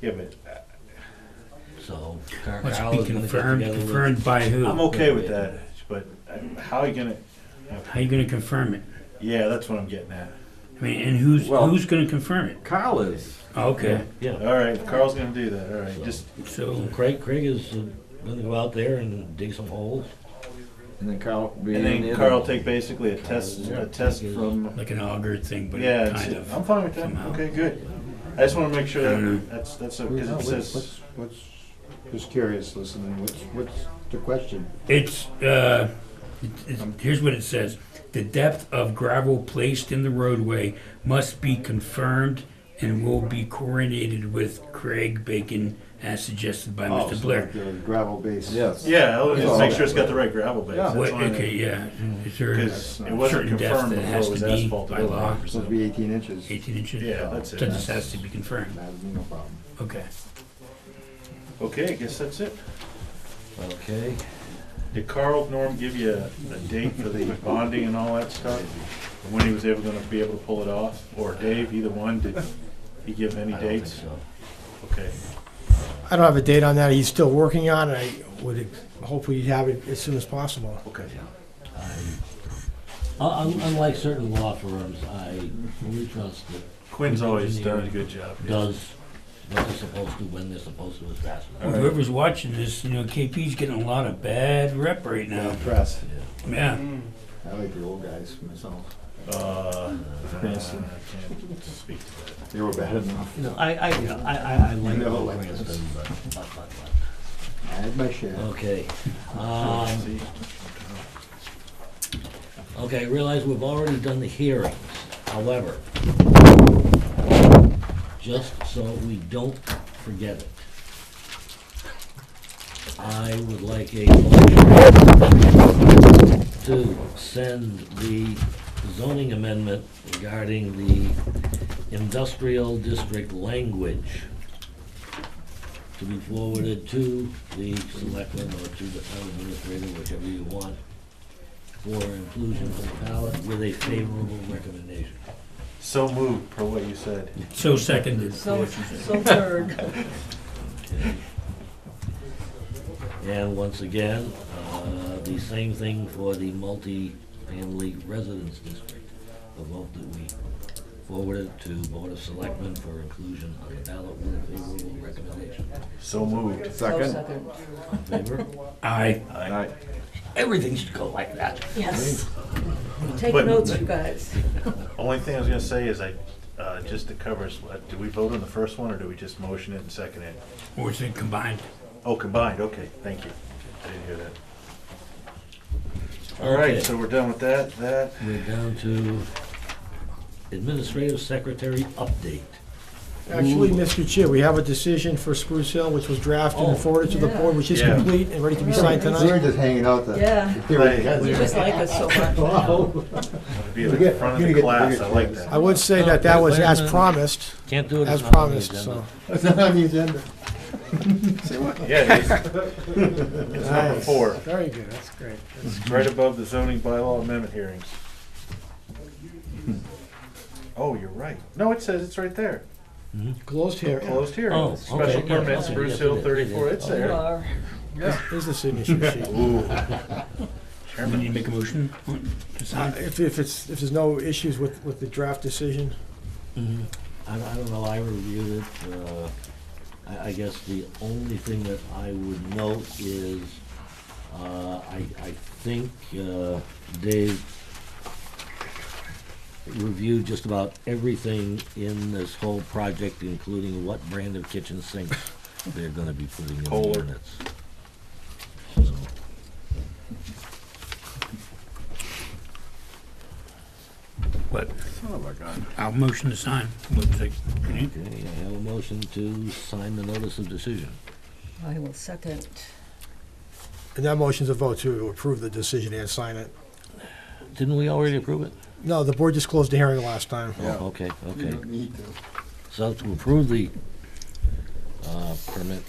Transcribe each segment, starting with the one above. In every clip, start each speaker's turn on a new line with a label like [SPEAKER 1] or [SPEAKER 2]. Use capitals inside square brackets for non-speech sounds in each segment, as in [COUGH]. [SPEAKER 1] Yeah, but
[SPEAKER 2] So Car-
[SPEAKER 3] Let's
[SPEAKER 2] Carl
[SPEAKER 3] be
[SPEAKER 2] is gonna get together
[SPEAKER 3] confirmed,
[SPEAKER 2] with-
[SPEAKER 3] confirmed by who?
[SPEAKER 1] I'm okay with that, but I- how are you gonna,
[SPEAKER 3] How you gonna confirm it?
[SPEAKER 1] yeah, that's what I'm getting at.
[SPEAKER 3] I mean, and who's,
[SPEAKER 4] Well-
[SPEAKER 3] who's gonna confirm it?
[SPEAKER 4] Kyle is.
[SPEAKER 3] Oh, Okay,
[SPEAKER 2] Yeah,
[SPEAKER 1] All right, Carl's gonna do that, all right, just,
[SPEAKER 3] so,
[SPEAKER 2] Craig, Craig is uh, gonna go out there and dig some holes.
[SPEAKER 4] And then Kyle will be in
[SPEAKER 1] and
[SPEAKER 4] the
[SPEAKER 1] then
[SPEAKER 4] other
[SPEAKER 1] Carl
[SPEAKER 4] one.
[SPEAKER 1] take basically a test, a test from,
[SPEAKER 3] like an auger thing, but
[SPEAKER 1] yeah,
[SPEAKER 3] kind
[SPEAKER 1] it's- I'm
[SPEAKER 3] of.
[SPEAKER 1] fine with that,
[SPEAKER 3] somehow.
[SPEAKER 1] okay, good. I just wanna make sure
[SPEAKER 3] I don't know.
[SPEAKER 1] that, that's, that's, because it says,
[SPEAKER 5] What's, what's, just curious listening, what's, what's the question?
[SPEAKER 3] It's, uh, it's- it's- here's what it says. The depth of gravel placed in the roadway must be confirmed and will be coordinated with Craig Bacon as suggested by
[SPEAKER 5] Oh,
[SPEAKER 3] Mr.
[SPEAKER 5] so
[SPEAKER 3] Blair.
[SPEAKER 5] like the Gravel base.
[SPEAKER 4] Yes.
[SPEAKER 1] yeah, I'll just make sure it's got the right gravel base,
[SPEAKER 4] Yeah.
[SPEAKER 1] that's
[SPEAKER 3] What,
[SPEAKER 1] what I mean.
[SPEAKER 3] okay, yeah. Is there a
[SPEAKER 1] Because it wasn't
[SPEAKER 3] certain depth
[SPEAKER 1] confirmed
[SPEAKER 3] that
[SPEAKER 1] before
[SPEAKER 3] has
[SPEAKER 1] it was
[SPEAKER 3] to be
[SPEAKER 1] asphalt
[SPEAKER 3] by
[SPEAKER 1] at all.
[SPEAKER 3] law?
[SPEAKER 5] Supposed to be eighteen inches.
[SPEAKER 3] Eighteen inches?
[SPEAKER 1] Yeah, that's
[SPEAKER 3] So this
[SPEAKER 1] it.
[SPEAKER 3] has to be confirmed.
[SPEAKER 5] That'd be no problem.
[SPEAKER 3] Okay.
[SPEAKER 1] Okay, I guess that's it.
[SPEAKER 2] Okay,
[SPEAKER 1] Did Carl Norm give you a, a date for the bonding and all that stuff? And when he was ever gonna be able to pull it off? Or Dave, either one, did he give any
[SPEAKER 2] I don't think
[SPEAKER 1] dates?
[SPEAKER 2] so.
[SPEAKER 1] Okay,
[SPEAKER 6] I don't have a date on that. He's still working on it. I would hopefully have it as soon as possible.
[SPEAKER 1] okay.
[SPEAKER 2] Uh, un- Unlike certain law firms, I really trust that
[SPEAKER 1] Quinn's always done a good job. yes.
[SPEAKER 2] does what they're supposed to, when they're supposed to, as fast as.
[SPEAKER 3] Well, Whoever's watching this, you know, KP's getting a lot of bad rep right now.
[SPEAKER 5] Press.
[SPEAKER 3] Yeah.
[SPEAKER 5] I like the old guys myself.
[SPEAKER 1] Uh, I can't speak to that.
[SPEAKER 5] They were bad enough.
[SPEAKER 2] You know, I, I, I, I, I like
[SPEAKER 5] Never
[SPEAKER 2] Bill
[SPEAKER 5] like this.
[SPEAKER 2] Cranston, but, but, but,
[SPEAKER 5] I had my
[SPEAKER 2] but,
[SPEAKER 3] Oh.
[SPEAKER 5] share.
[SPEAKER 2] okay. Um,
[SPEAKER 1] See?
[SPEAKER 2] okay, I realize we've already done the hearings, however, just so we don't forget it, I would like a motion to send the zoning amendment regarding the industrial district language to be forwarded to the selectmen or to the town administrator, whichever you want, for inclusion for the ballot with a favorable recommendation.
[SPEAKER 1] So moved per what you said.
[SPEAKER 3] So seconded.
[SPEAKER 2] [LAUGHS]
[SPEAKER 7] So, so third.
[SPEAKER 2] okay? And once again, uh, the same thing for the multi-family residence district, the vote that we forwarded to Board of Selectmen for inclusion on the ballot with a favorable recommendation.
[SPEAKER 1] So moved.
[SPEAKER 7] So
[SPEAKER 4] Second.
[SPEAKER 7] second.
[SPEAKER 2] In Favor?
[SPEAKER 3] Aye.
[SPEAKER 4] Aye.
[SPEAKER 2] Everything should go like that.
[SPEAKER 7] Yes. Take
[SPEAKER 1] But-
[SPEAKER 7] notes, you guys.
[SPEAKER 1] Only thing I was gonna say is I, uh, just to cover, us, uh, do we vote on the first one or do we just motion it and second it?
[SPEAKER 3] Or is it combined?
[SPEAKER 1] Oh, combined, okay, thank you. I didn't hear that. All right,
[SPEAKER 2] Okay.
[SPEAKER 1] so we're done with that, that.
[SPEAKER 2] We're down to administrative secretary update.
[SPEAKER 6] Actually, Mr. Chair, we have a decision for Spruce Hill, which was drafted
[SPEAKER 2] Oh.
[SPEAKER 6] and forwarded to the board, which is
[SPEAKER 1] Yeah.
[SPEAKER 6] complete and ready to be signed
[SPEAKER 5] We were
[SPEAKER 6] tonight.
[SPEAKER 5] just hanging out the.
[SPEAKER 7] Yeah.
[SPEAKER 5] They were guys.
[SPEAKER 7] You just like us so much.
[SPEAKER 5] [LAUGHS] Wow.
[SPEAKER 1] Be at
[SPEAKER 5] You
[SPEAKER 1] the
[SPEAKER 5] get-
[SPEAKER 1] front
[SPEAKER 5] you
[SPEAKER 1] of the
[SPEAKER 5] get
[SPEAKER 1] class,
[SPEAKER 5] bigger
[SPEAKER 1] I like
[SPEAKER 5] chance.
[SPEAKER 1] that.
[SPEAKER 6] I would say that that was as promised,
[SPEAKER 2] Can't do it.
[SPEAKER 6] as
[SPEAKER 2] it's not on the
[SPEAKER 6] promised, so.
[SPEAKER 2] agenda.
[SPEAKER 5] It's not on the agenda.
[SPEAKER 1] Yeah,
[SPEAKER 5] [LAUGHS]
[SPEAKER 1] it is. It's number
[SPEAKER 6] Nice.
[SPEAKER 1] four,
[SPEAKER 6] Very good, that's great.
[SPEAKER 1] right above the zoning bylaw amendment hearings. Oh, you're right. No, it says it's right there.
[SPEAKER 6] Closed here.
[SPEAKER 1] Closed
[SPEAKER 2] Oh,
[SPEAKER 1] hearings, special
[SPEAKER 2] okay, yeah, Uh-huh.
[SPEAKER 1] permit,
[SPEAKER 2] okay,
[SPEAKER 1] Spruce
[SPEAKER 2] yes, it
[SPEAKER 1] Hill
[SPEAKER 2] is,
[SPEAKER 1] thirty-four,
[SPEAKER 2] it is.
[SPEAKER 1] it's
[SPEAKER 7] You
[SPEAKER 1] there.
[SPEAKER 7] are.
[SPEAKER 6] Here's
[SPEAKER 2] [LAUGHS]
[SPEAKER 6] the signature sheet.
[SPEAKER 1] Ooh.
[SPEAKER 3] We need
[SPEAKER 1] Chairman,
[SPEAKER 3] to make a motion to
[SPEAKER 6] Uh,
[SPEAKER 3] sign.
[SPEAKER 6] If, if it's, if there's no issues with, with the draft decision,
[SPEAKER 2] Mhm. I, I don't know, I reviewed it, uh, I, I guess the only thing that I would note is, uh, I, I think, uh, Dave reviewed just about everything in this whole project, including what brand of kitchen sinks they're gonna be putting in the
[SPEAKER 1] Kohler.
[SPEAKER 2] units. So,
[SPEAKER 3] What?
[SPEAKER 4] Son of a gun.
[SPEAKER 3] I'll motion to sign. Looks like-
[SPEAKER 2] Okay, I have a motion to sign the notice of decision.
[SPEAKER 7] I will second.
[SPEAKER 6] and that motion's a vote to approve the decision and sign it.
[SPEAKER 2] Didn't we already approve it?
[SPEAKER 6] No, the board just closed the hearing last time.
[SPEAKER 2] Oh,
[SPEAKER 5] Yeah.
[SPEAKER 2] Okay,
[SPEAKER 5] You
[SPEAKER 2] okay.
[SPEAKER 5] don't need to.
[SPEAKER 2] So to approve the uh, permit,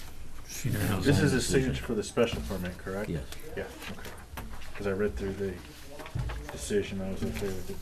[SPEAKER 3] She knows how to
[SPEAKER 1] this
[SPEAKER 3] sign.
[SPEAKER 1] is a signature for the special permit, correct?
[SPEAKER 2] yes.
[SPEAKER 1] Yeah, okay. Because I read through the decision, I was okay with it.